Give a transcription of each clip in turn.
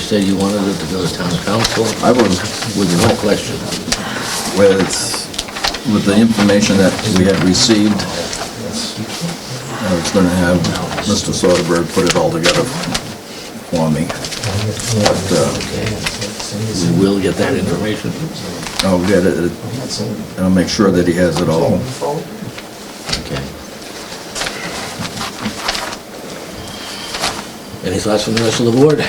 said you wanted it to go to town council I would, with no question. with, with the information that we had received, I was gonna have Mr. Soderberg put it all together for me. But, uh, We will get that information. I'll get it, I'll make sure that he has it all. Okay. Any thoughts from the rest of the board?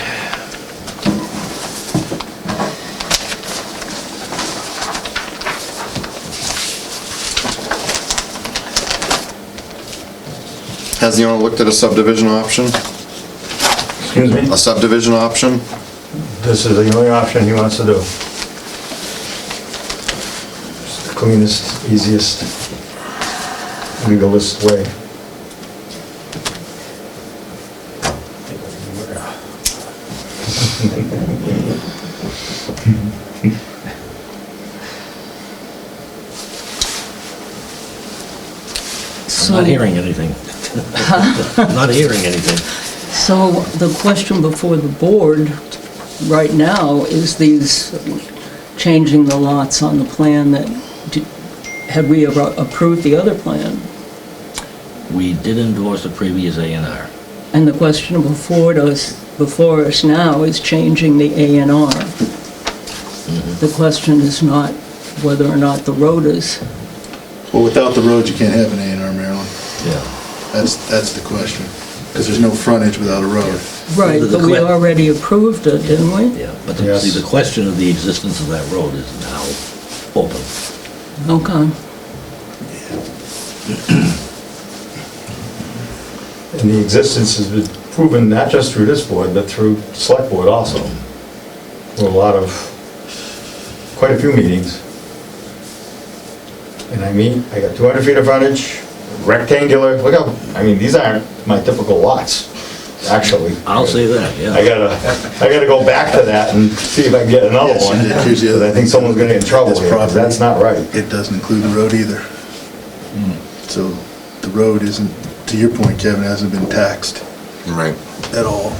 Has the owner looked at a subdivision option? Excuse me, A subdivision option? this is the only option he wants to do. It's the Cleanest, easiest, legalist way. I'm So, not hearing anything. Not hearing anything. so the question before the board right now is these, changing the lots on the plan that, d- had we ever approved the other plan? We did endorse the previous A and R. And the question before us, before us now is changing the A and R. Mm-hmm. The question is not whether or not the road is, Well, without the road, you can't have an A and R, Maryland. Yeah. That's, that's the question, because there's no frontage without a road. right, The- the but we que- already approved it, didn't we? Yeah, but the, Yes. see, the question of the existence of that road is now open. Okay. And the existence has been proven not just through this board, but through select board also. Through a lot of, quite a few meetings. And I mean, I got 200 feet of frontage, rectangular, look how, I mean, these aren't my typical lots, actually. I'll say that, I yeah. gotta, I gotta go back to that and see if I can get another Yes, one. you did. Here's the other Because I think thing. someone's gonna get in trouble It's here, 'cause property. Oh, that's not right. It doesn't include the road either. So the road isn't, to your point, Kevin, hasn't been taxed Right. at all.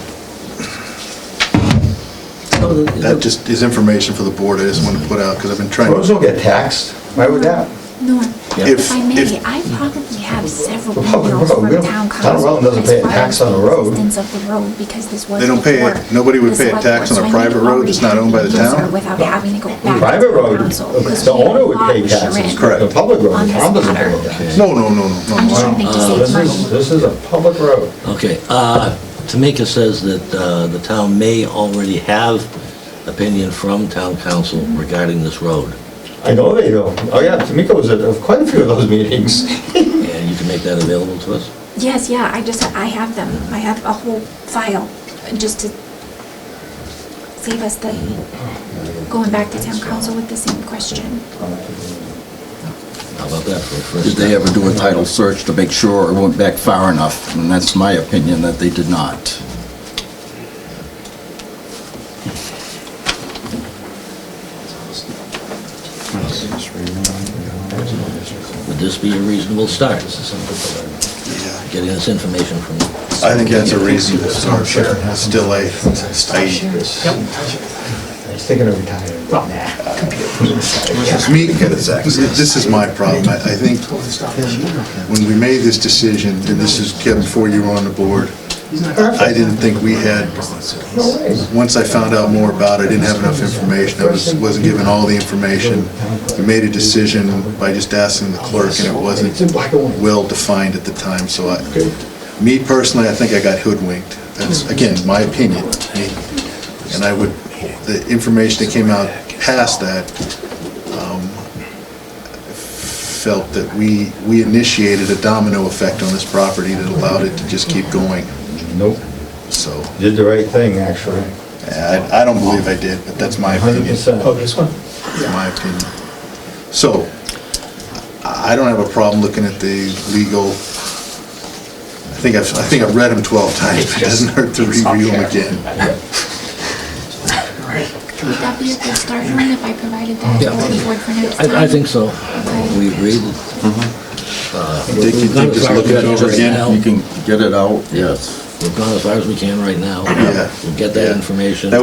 So the- That just is information for the board, I just want to put out, because I've been trying. Roads don't get taxed, why would that? Norm, Yeah. if I may, If- I probably have several Well, public emails road, we from don't- town town of council. Rutland doesn't pay a tax on a road. As far as the existence of the road, because this was They don't pay before it. Nobody would the pay a select tax on board, a so I need private road that's not owned by the an answer town? Without having to go back. to Private road, council, because the we owner would have pay laws taxes, written Correct. the public road, on the this town doesn't matter. pay taxes. No, no, no, no, I'm just no. hoping to save Uh, This money. is, this is a public road. Okay, uh, Tamika says that, uh, the town may already have opinion from town council regarding this road. I know they don't, oh yeah, Tamika was at quite a few of those meetings. And you can make that available to us? Yes, yeah, I just, I have them, I have a whole file, just to save us the, going back to town council with the same question. How about that for a first Did step? they ever do a title search to make sure it went back far enough? And that's my opinion, that they did not. Would this be a reasonable start, Yeah. getting this information from I think that's a reasonable start, but still a, a I was thinking of retiring, but nah. Me, this is my problem. I I think when we made this decision, and this is, Kevin, before you were on the board, I didn't think we had, No way. once I found out more about it, I didn't have enough information. I was- wasn't given all the information. We made a decision by just asking the clerk, and it wasn't It's in black and white. well-defined at the time, so I, Okay. Hmm. me personally, I think I got hoodwinked. That's, again, my opinion. And I would, the information that came out past that um, felt that we, we initiated a domino effect on this property that allowed it to just keep going. Nope, So, did the right thing, actually, I, I don't believe I did, but that's my hundred opinion. percent. in my opinion. So, I I don't have a problem looking at the legal, I think I've, I think I've read them 12 times, it doesn't hurt to review them again. Would that be a good start, Norm, if I provided that to Yeah. the board for next time? I, I think so. Okay. We agree. Dick, you think just look it over again? You can get it out, yes. We've gone as far as we can right now. Yeah. We'll get that Yeah. information. That